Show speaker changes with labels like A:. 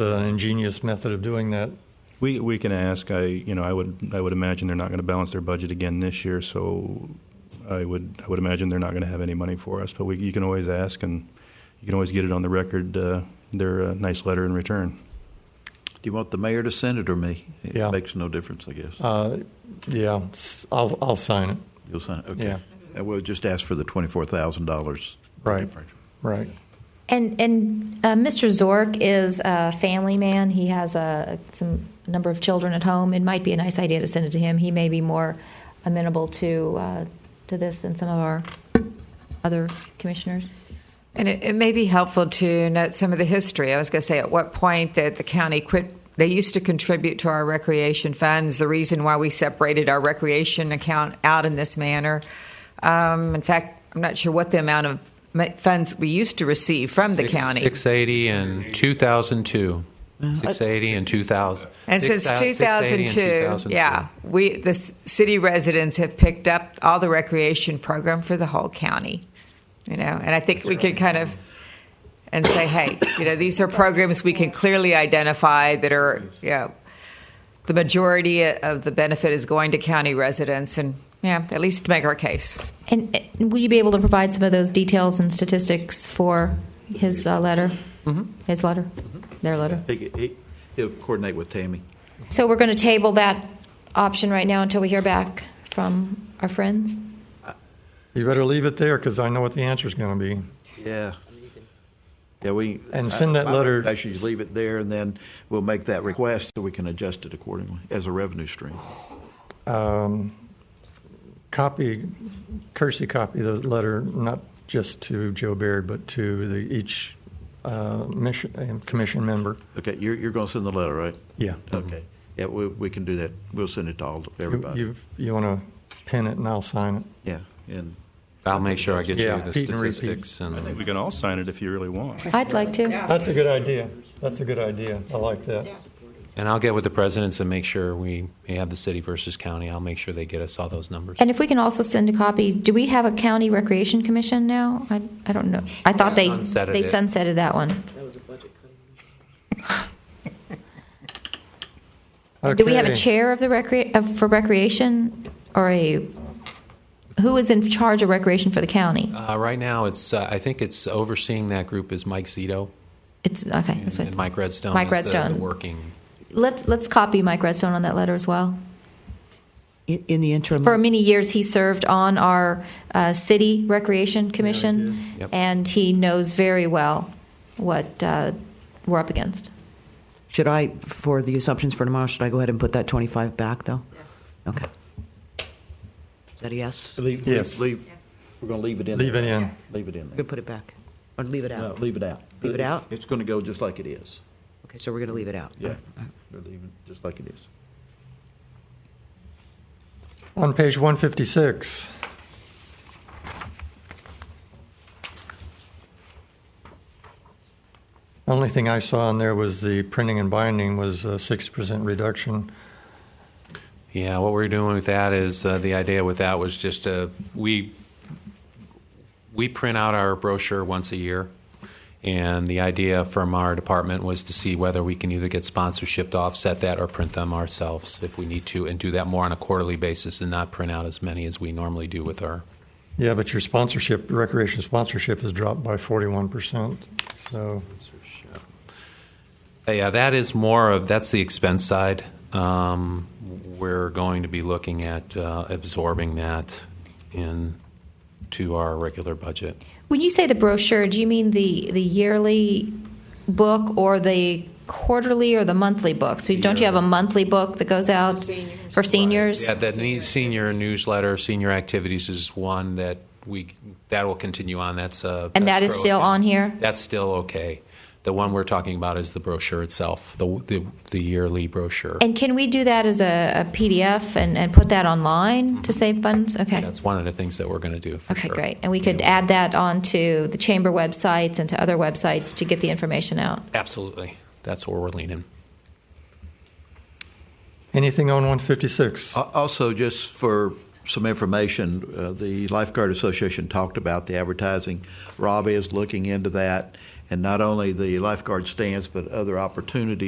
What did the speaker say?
A: It's an ingenious method of doing that.
B: We, we can ask. I, you know, I would, I would imagine they're not going to balance their budget again this year, so I would, I would imagine they're not going to have any money for us. But we, you can always ask, and you can always get it on the record, uh, their uh, nice letter in return.
C: Do you want the mayor to send it or me? It
A: Yeah.
C: makes no difference, I guess.
A: Uh, yeah, s- I'll, I'll sign it.
C: You'll sign it. Okay.
A: yeah.
C: And we'll just ask for the twenty-four thousand dollars.
A: Right, right.
D: And and uh, Mr. Zork is a family man. He has a some a number of children at home. It might be a nice idea to send it to him. He may be more amenable to uh, to this than some of our other commissioners.
E: And it, it may be helpful to note some of the history. I was going to say at what point that the county quit. They used to contribute to our recreation funds. The reason why we separated our recreation account out in this manner. Um, in fact, I'm not sure what the amount of ma- funds we used to receive from the county.
F: 680 and 2002. 680 and 2000.
E: And
F: Six
E: since
F: thou- 680 and
E: 2002,
F: 2002.
E: yeah, we the s- city residents have picked up all the recreation program for the whole county, you know, and I think we could kind of and say, hey, you know, these are programs we can clearly identify that are, you know, the majority of the benefit is going to county residents, and yeah, at least make our case.
D: And uh, will you be able to provide some of those details and statistics for his uh, letter? His letter, their letter.
C: He, he, he'll coordinate with Tammy.
D: So we're going to table that option right now until we hear back from our friends.
A: You better leave it there because I know what the answer's going to be.
C: Yeah. Yeah, we.
A: And send that
C: I- I
A: letter-
C: recommendation is leave it there and then we'll make that request so we can adjust it accordingly as a revenue stream.
A: Um, Copy, cursey copy the letter, not just to Joe Baird, but to the each uh, mission, uh, commission member. Uh,
C: Okay, you're, you're going to send the letter, right?
A: Yeah.
C: Okay. Yeah, we, we can do that. We'll send it to all,
A: You,
C: everybody.
A: you, you want to pin it and I'll sign it.
C: Yeah, and
F: I'll make sure I get
A: Yeah,
F: you the
A: Pete and repeat.
F: statistics.
B: I
F: and
B: think we can all sign it if you really want.
D: I'd like to.
A: That's a good idea. That's a good idea. I like that.
F: And I'll get with the presidents and make sure we we have the city versus county. I'll make sure they get us all those numbers.
D: And if we can also send a copy, do we have a county recreation commission now? I, I don't know. I thought they,
F: Sunsetted
D: they
F: it.
D: sunsetted that one. Do we have a
A: Okay.
D: chair of the recre, of- for recreation or a, who is in charge of recreation for the county?
F: Uh, Right now, it's, uh, I think it's overseeing that group is Mike Zito
D: It's, okay,
F: and
D: that's
F: and
D: what,
F: Mike Redstone.
D: Mike
F: is the-
D: Redstone.
F: The working.
D: let's, let's copy Mike Redstone on that letter as well.
G: In, in the interim,
D: For many years, he served on our uh, city recreation commission,
F: Yep.
D: and he knows very well what uh, we're up against.
G: should I, for the assumptions for tomorrow, should I go ahead and put that 25 back, though? Yes. Okay. Is that a yes?
C: leave,
A: Yes.
C: leave, leave- we're going to leave it in.
A: Leave it in.
C: Leave it in
G: We
C: there.
G: put it back, or leave it
C: No,
G: out?
C: leave it out.
G: Leave it out?
C: It's going to go just like it is.
G: Okay, so we're going to leave it out?
C: Yeah, we're leaving just like it is.
A: On page 156, the only thing I saw on there was the printing and binding was a 6% reduction.
F: Yeah, what we're doing with that is uh, the idea with that was just uh, we we print out our brochure once a year, and the idea from our department was to see whether we can either get sponsorship to offset that or print them ourselves if we need to, and do that more on a quarterly basis and not print out as many as we normally do with our.
A: Yeah, but your sponsorship, recreation sponsorship has dropped by 41%. So,
F: Yeah, that is more of that's the expense side. Um, we're going to be looking at uh, absorbing that in to our regular budget.
D: When you say the brochure, do you mean the, the yearly book or the quarterly or the monthly book? So don't you have a monthly book that goes out for seniors?
F: Yeah, that ne- senior newsletter, senior activities is one that we, that will continue on, that's uh
D: And that
F: that's
D: is still
F: broken.
D: on here?
F: That's still okay. The one we're talking about is the brochure itself, the, the, the yearly brochure.
D: And can we do that as a, a PDF and, and put that online to save funds? Okay.
F: Mm-hmm. That's one of the things that we're going to do, for
D: Okay,
F: sure.
D: great. And we could add that onto the chamber websites and to other websites to get the information out.
F: Absolutely, that's where we're leaning.
A: anything on 156?
C: Al- Also, just for some information, uh, the Lifeguard Association talked about the advertising. Rob is looking into that, and not only the lifeguard stands, but other opportunities